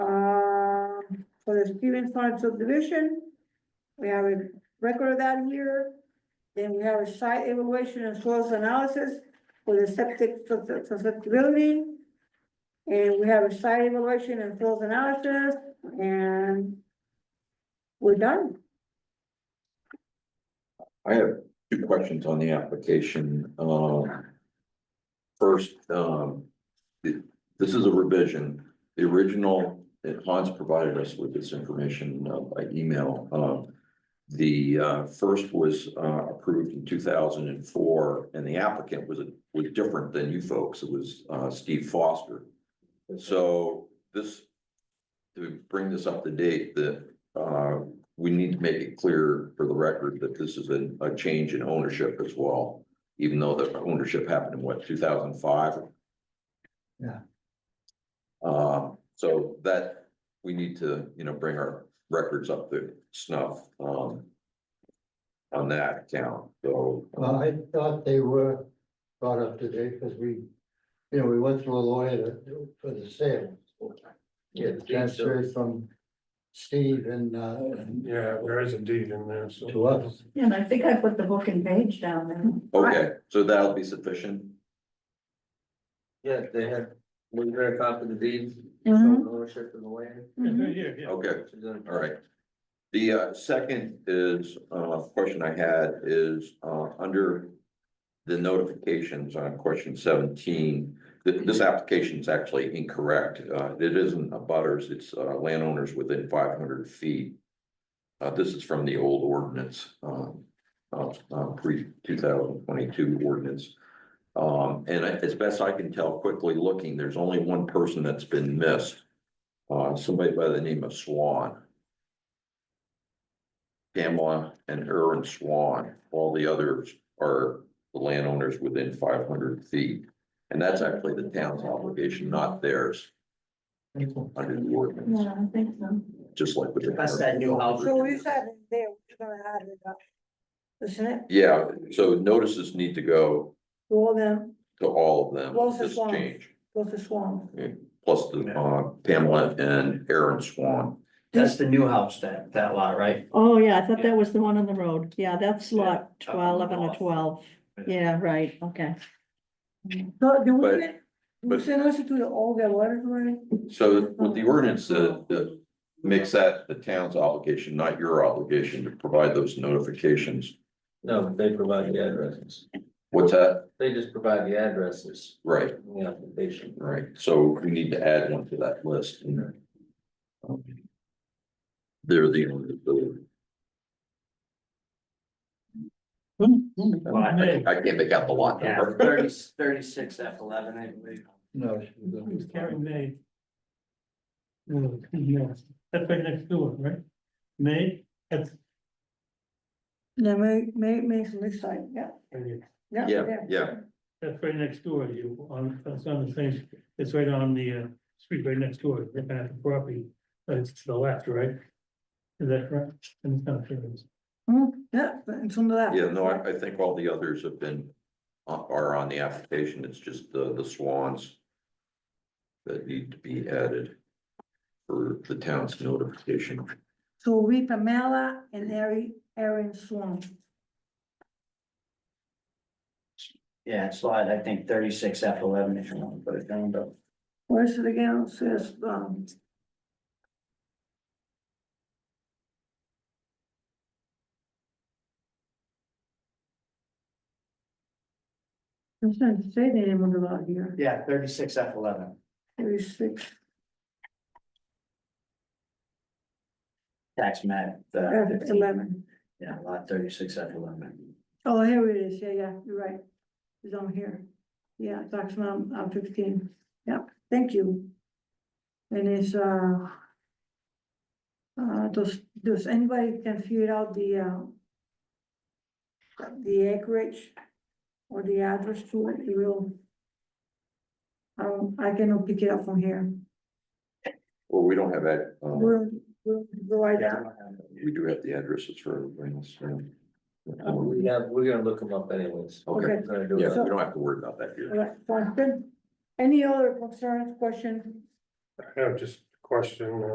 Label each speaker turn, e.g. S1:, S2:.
S1: Um, for the Stevens Farm subdivision. We have a record of that here. Then we have a site evaluation and soils analysis for the septic sus- susceptibility. And we have a site evaluation and soils analysis and we're done.
S2: I have two questions on the application, um. First, um, it- this is a revision, the original, that Hans provided us with this information uh, by email, um. The, uh, first was, uh, approved in two thousand and four, and the applicant was, was different than you folks, it was, uh, Steve Foster. So this, to bring this up to date, that, uh, we need to make it clear for the record that this is a, a change in ownership as well. Even though the ownership happened in what, two thousand five?
S3: Yeah.
S2: Uh, so that, we need to, you know, bring our records up to snuff, um. On that account, so.
S3: Well, I thought they were brought up today because we, you know, we went through a lawyer to- for the sale.
S4: Yeah,
S3: Yeah,
S4: the deed
S3: transferred from Steve and, uh, and
S4: Yeah, there is a deed in there, so.
S3: to us.
S5: And I think I put the book and page down there.
S2: Okay, so that'll be sufficient?
S6: Yeah, they had, was there a copy of the deeds?
S2: Mm-hmm.
S5: Mhm.
S6: showing Ownership of the land.
S2: Okay.
S6: which is in-
S2: All right. The uh, second is, uh, question I had is, uh, under the notifications on question seventeen, th- this application is actually incorrect. Uh, it isn't a butters, it's, uh, landowners within five hundred feet. Uh, this is from the old ordinance, um, uh, uh, pre two thousand twenty-two ordinance. Um, and I- as best I can tell, quickly looking, there's only one person that's been missed. Uh, somebody by the name of Swan. Pamela and Aaron Swan, all the others are the landowners within five hundred feet. And that's actually the town's obligation, not theirs, under the ordinance,
S5: Yeah, I think so.
S2: just like with the.
S6: That's that new house.
S1: So we said it there, we're gonna add it up. Isn't it?
S2: Yeah, so notices need to go
S1: All them,
S2: to all of them,
S1: Well, it's a
S2: this
S1: Swan.
S2: change,
S1: goes to Swan.
S2: plus the uh, Pamela and Aaron Swan.
S6: That's the new house, that, that lot, right?
S5: Oh, yeah, I thought that was the one on the road. Yeah, that's
S6: Yeah,
S5: lot
S6: up on
S5: twelve, eleven or
S6: north.
S5: twelve. Yeah, right, okay.
S1: So do we,
S2: But-
S1: get- we
S2: but-
S1: send us to the all the letters already?
S2: So with the ordinance, the, the makes that the town's obligation, not your obligation to provide those notifications.
S6: No, they provide the addresses.
S2: What's that?
S6: They just provide the addresses
S2: Right,
S6: in the application.
S2: right. So we need to add one to that list. Um, They're the only, the- I I can't make out the lot
S6: Yeah,
S2: number.
S6: thirty, thirty-six F eleven, I believe.
S3: No. she
S4: Oh.
S3: was-
S7: Karen May. No, yes, that's right next door, right? May, that's.
S1: No, May, May, May's next side, yeah, yeah.
S2: Yeah,
S1: there.
S2: yeah.
S7: That's right next door to you, on, that's on the same, it's right on the, uh, street right next door, looking at the property, but it's to the left, right? Is that correct? And it's not sure.
S1: Mhm, Yeah, but it's on the left.
S2: Yeah, no, I, I think all the others have been, are- are on the application. It's just the, the swans that need to be added for the town's notification.
S1: So we Pamela and Ari, Aaron Swan.
S6: Yeah, it's lot, I think thirty-six F eleven if you want to put it down, but.
S1: Where's it again? It says, um. It's not say the name of the lot here,
S6: Yeah, thirty-six F eleven.
S1: thirty-six,
S6: Tax map,
S1: uh,
S6: the,
S1: eleven.
S6: yeah, lot thirty-six F eleven.
S1: Oh, here it is, yeah, yeah, you're right, it's on here, yeah, tax map, uh, fifteen, yeah, thank you. And it's, uh. Uh, does, does anybody can figure out the, uh. The acreage or the address to it, it will. I don't, I cannot pick it up from here,
S2: Well, we don't have that. um,
S1: we're, we're, we're right
S6: Yeah.
S1: down,
S2: We do have the addresses for everybody else. so.
S6: We have, we're gonna look them up anyways.
S2: Okay,
S1: Oh, okay,
S6: We're gonna do
S2: yeah,
S6: it.
S2: we don't have to worry about that
S1: all
S2: here.
S1: right, sounds good. Any other concerns, questions?
S4: I have just a question, uh,